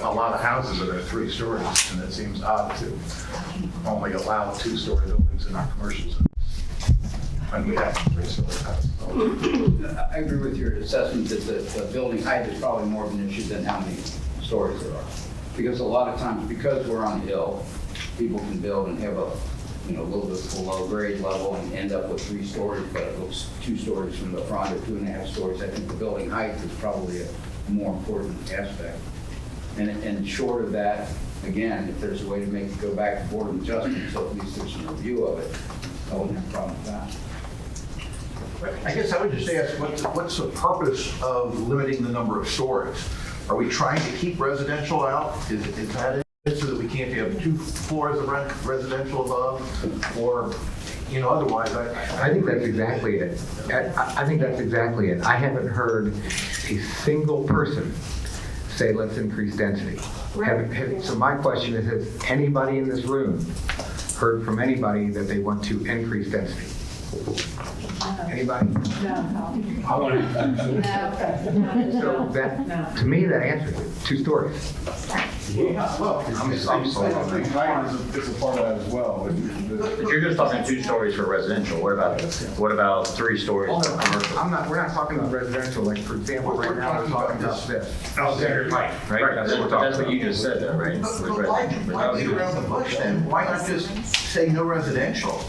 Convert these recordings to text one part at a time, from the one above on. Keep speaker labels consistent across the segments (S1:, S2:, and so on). S1: a lot of houses that are three stories, and it seems odd to only allow two-story buildings in our commercial zones. And we have three-story houses.
S2: I agree with your assessment that the, the building height is probably more of an issue than how many stories there are. Because a lot of times, because we're on a hill, people can build and have a, you know, a little bit below grade level and end up with three stories, but it looks two stories from the front or two and a half stories. I think the building height is probably a more important aspect. And, and short of that, again, if there's a way to make it go back to board of adjustment, so at least there's a review of it, I wouldn't have a problem with that.
S3: I guess I would just ask, what's, what's the purpose of limiting the number of stories? Are we trying to keep residential out? Is, is that it, so that we can't have two floors of re- residential above? Or, you know, otherwise, I,
S4: I think that's exactly it. I, I think that's exactly it. I haven't heard a single person say, let's increase density. Have- have- So my question is, has anybody in this room heard from anybody that they want to increase density? Anybody?
S5: No.
S4: So that, to me, that answers it, two stories.
S1: I'm sorry. Mine is a- is a part of that as well.
S6: If you're just talking two stories for residential, what about, what about three stories
S4: Oh,
S6: for
S4: no,
S6: commercial?
S4: I'm not, we're not talking about residential, like, for example, right now, I'm talking about this.
S1: Alexander Pike.
S6: Right, that's what, that's what you just said though, right?
S3: But
S6: With
S3: but why,
S6: residential.
S3: why beat around the bush then? Why not just say no residential?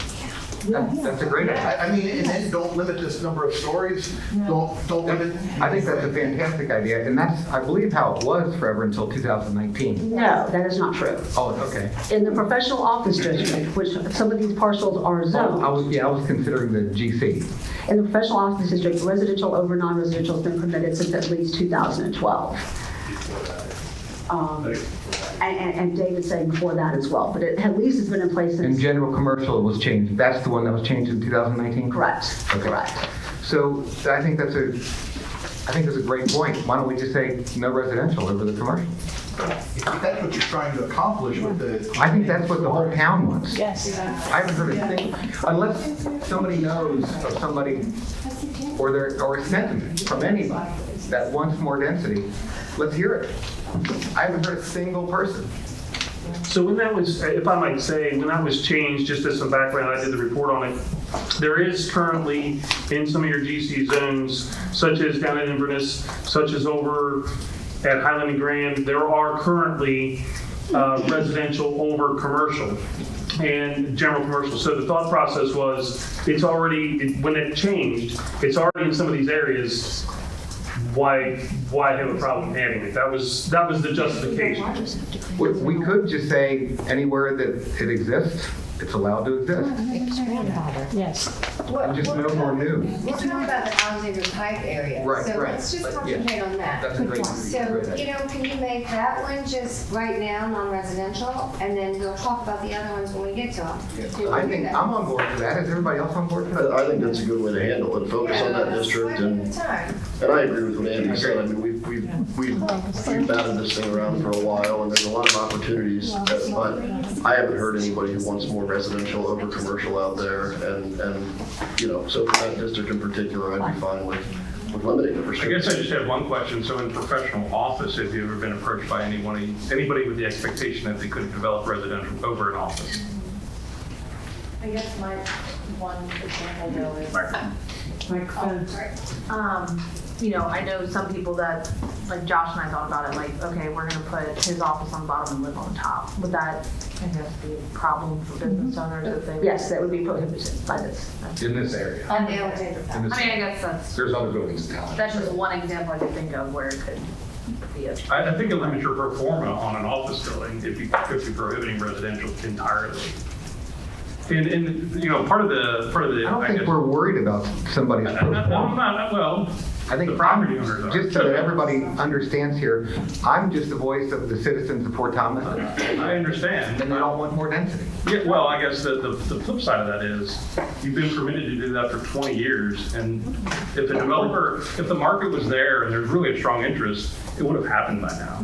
S4: That's that's a great idea.
S3: I, I mean, and then don't limit this number of stories, don't, don't limit.
S4: I think that's a fantastic idea, and that's, I believe, how it was forever until 2019.
S5: No, that is not true.
S4: Oh, okay.
S5: In the professional office district, which some of these parcels are
S4: Oh, I
S5: zoned,
S4: was, yeah, I was considering the GC.
S5: in the professional office district, residential over non-residential has been permitted since at least 2012. Um, And, and- and David said before that as well, but it at least it's been in place
S4: And
S5: since,
S4: general commercial was changed. That's the one that was changed in 2019?
S5: correct,
S4: Okay.
S5: correct.
S4: So I think that's a, I think that's a great point. Why don't we just say no residential over the commercial?
S3: If that's what you're trying to accomplish with the.
S4: I think that's what the whole town wants. Yes. I haven't heard a thing, unless somebody knows of somebody, or their, or a sentiment from anybody that wants more density, let's hear it. I haven't heard a single person.
S7: So when that was, if I might say, when that was changed, just as some background, I did the report on it. There is currently in some of your GC zones, such as down at Inverness, such as over at Highland and Grand, there are currently uh, residential over commercial and general commercial. So the thought process was, it's already, when it changed, it's already in some of these areas, why, why have a problem having it? That was, that was the justification.
S4: We- We could just say anywhere that it exists, it's allowed to exist,
S8: Yes.
S9: Mm-hmm.
S4: and just no more new.
S9: We're talking about the Alexander Pike area.
S4: Right,
S9: So
S4: right,
S9: let's just
S4: but, yeah.
S9: concentrate on that.
S4: That's a great,
S9: So,
S4: great
S9: you
S4: idea.
S9: know, can you make that one just right now, non-residential, and then we'll talk about the other ones when we get to them? Do
S4: I
S9: we do
S4: think
S9: that?
S4: I'm on board for that. Is everybody else on board for that?
S10: I think that's a good way to handle it, focus on that
S9: Yeah,
S10: district,
S9: one at a
S10: and,
S9: time.
S10: and I agree with what Andy said, I mean, we've, we've, we've we've batted this thing around for a while, and there's a lot of opportunities, that- but I haven't heard anybody who wants more residential over commercial out there, and, and, you know, so for that district in particular, I'd be fine with, with limiting the
S11: I guess
S10: restrictions.
S11: I just have one question. So in professional office, have you ever been approached by anyone, anybody with the expectation that they could develop residential over an office?
S12: I guess my one example though is. Microphone. Um, you know, I know some people that, like Josh and I thought about it, like, okay, we're gonna put his office on the bottom and live on top. Would that, I guess, be a problem for business owners if they?
S5: Yes, that would be prohibited by this.
S4: In this area.
S9: And they all did that.
S4: in
S12: I mean,
S4: this-
S12: I guess that's,
S4: There's other buildings in town.
S12: that's just one example I could think of where it could be a.
S11: I, I think it limits your pro forma on an office building if you, if you're prohibiting residential entirely. And, and, you know, part of the, part of the.
S4: I don't
S11: guess-
S4: think we're worried about somebody's.
S11: I- I- I'm not, well,
S4: I think
S11: the property owners are.
S4: Just so that everybody understands here, I'm just the voice of the citizens of Port Thomas,
S11: I understand.
S4: and they all want more density.
S11: Yeah, well, I guess the, the, the flip side of that is, you've been permitted to do that for 20 years, and if the developer, if the market was there and there's really a strong interest, it would have happened by now.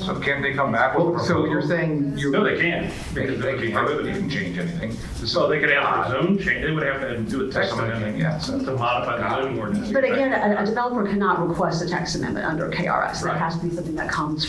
S1: So can they come back
S4: Well, so you're saying
S11: No,
S4: you're,
S11: they can, because they would be prohibited.
S1: change anything.
S11: So they could ask for a zone change, they would have to do a text
S1: Somebody can,
S11: amendment
S1: yeah, so-
S11: to modify the zoning ordinance.
S5: But again, a a developer cannot request a text amendment under KRS. That
S11: Right.
S5: has to be something that comes